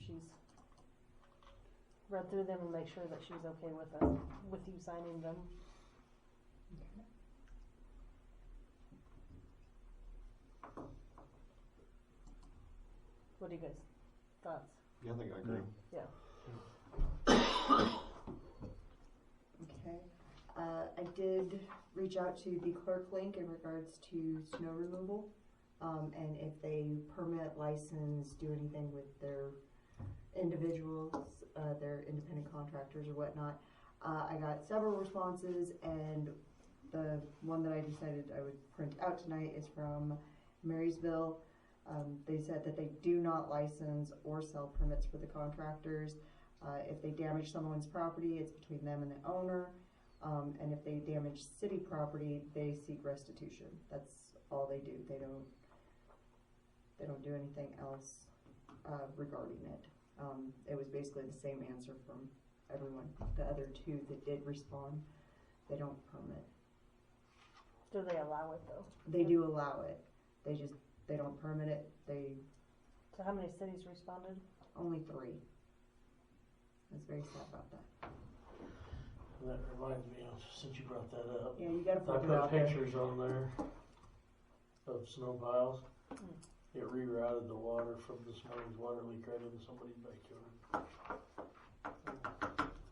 she's read through them and make sure that she's okay with us, with you signing them. What do you guys, thoughts? Yeah, I think I agree. Okay. Uh, I did reach out to the clerk link in regards to snow removal. Um, and if they permit, license, do anything with their individuals, uh, their independent contractors or whatnot. Uh, I got several responses and the one that I decided I would print out tonight is from Marysville. Um, they said that they do not license or sell permits for the contractors. Uh, if they damage someone's property, it's between them and the owner. Um, and if they damage city property, they seek restitution. That's all they do. They don't, they don't do anything else, uh, regarding it. Um, it was basically the same answer from everyone. The other two that did respond, they don't permit. Do they allow it though? They do allow it. They just, they don't permit it. They, So how many cities responded? only three. I was very sad about that. That reminds me of, since you brought that up, Yeah, you gotta I put it put out there. pictures on there of snow piles. Mm. It rerouted the water from this morning's water leak right into somebody's backyard.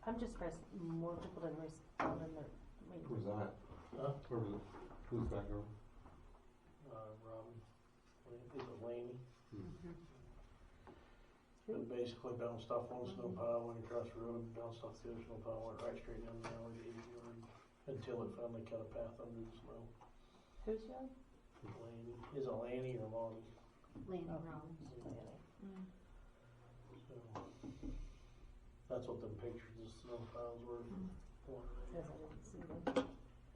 I'm just surprised more people didn't respond in their, I mean, Who's that? Huh? Where was it? Who's back over? Uh, Robin, Lan- is it Laney? Who? It basically bounced off one snow pile, went across the road, bounced off the other snow pile, went right straight down the alley to the yard until it finally cut a path under the snow. who's young? Laney, is it Laney or Lonnie? Land Oh. around. Mm. So, That's what the pictures of snow piles were. Yes, I didn't see them.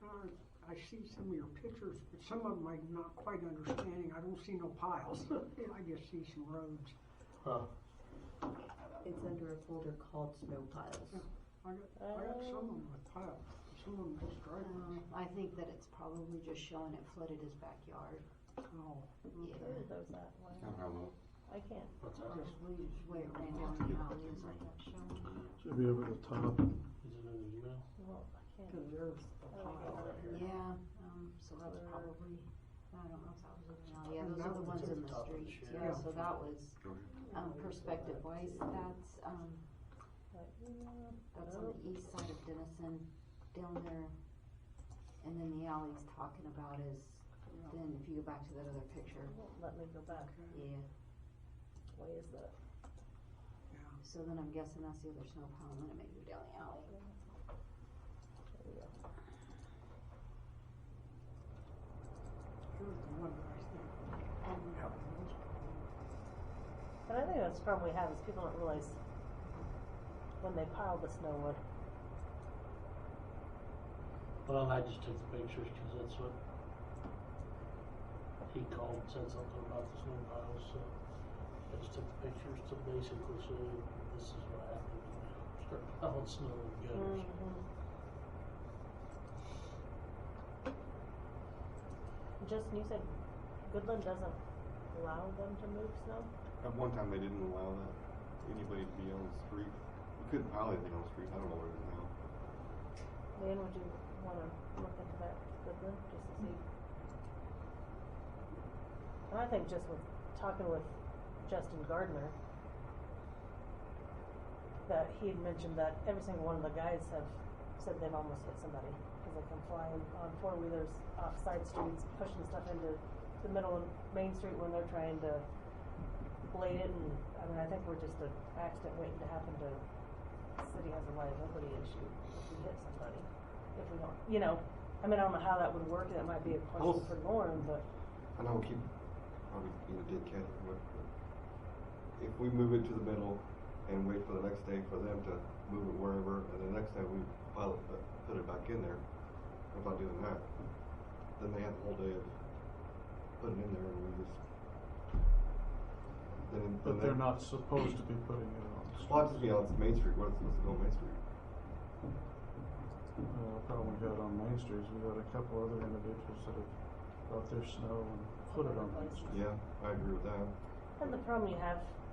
Uh, I see some of your pictures, but some of them I'm not quite understanding. I don't see no piles. I just see some roads. Huh, It's under a folder called snow piles. I got, I Um, got some of them with piles, some of them just Oh. Um, driveways. I think that it's probably just showing it flooded his backyard. Oh, Yeah. Those that I one. don't know. I can't. what's that? Just we just way it ran down the alley is like that showing. Should be over the top. Is it in the email? Well, I can't. because there's a pile. Right here. Yeah, um, so that's probably, I don't know if that was in the alley. Yeah, those are the ones in the Top of the streets. shed. Yeah, so that was, Go ahead. um, perspective wise, that's, um, Like, mm, that's on Oh. the east side of Denison, down there. And then the alley he's talking about is, then if you go back to that other picture, it won't Let me go back. yeah. Way is that? So then I'm guessing that's the other snow pile and then it may go down the alley. There we go. Here's the one that I think. And Yeah. And I think that's the problem we have is people don't realize when they pile the snow, what, Well, I just took the pictures because that's what he called and said something about the snow piles, so I just took the pictures to basically show you this is what happened. when I Start piling snow in gutters. Mm. Justin, you said Goodland doesn't allow them to move snow? At one time, they didn't allow that anybody to be on the street. You couldn't pile anything on the street. I don't know where it is now. Dan, would you wanna look into that Goodland, just to see? And I think just with, talking with Justin Gardner, that he had mentioned that every single one of the guys have said they've almost hit somebody, cause they come flying on four wheelers off side streets, pushing stuff into the middle of Main Street when they're trying to blade it, and, I mean, I think we're just an accident waiting to happen to, the city has a liability issue if we hit somebody if we don't, you know, I mean, I don't know how that would work, that might be a question Well- for Lauren, but, I know keep probably being a dickhead, but if we move it to the middle and wait for the next day for them to move it wherever, and the next day we pile it, put it back in there, without doing that, then they have the whole day of putting it in there and we just. Then, then But they're they- not supposed to be putting it Well, on. it's to be on Main Street. What is supposed to go on Main Street? Uh, the problem we got on Main Street is we got a couple other individuals that have brought their snow and put it on Main Street. Yeah, I agree with that. and the problem you have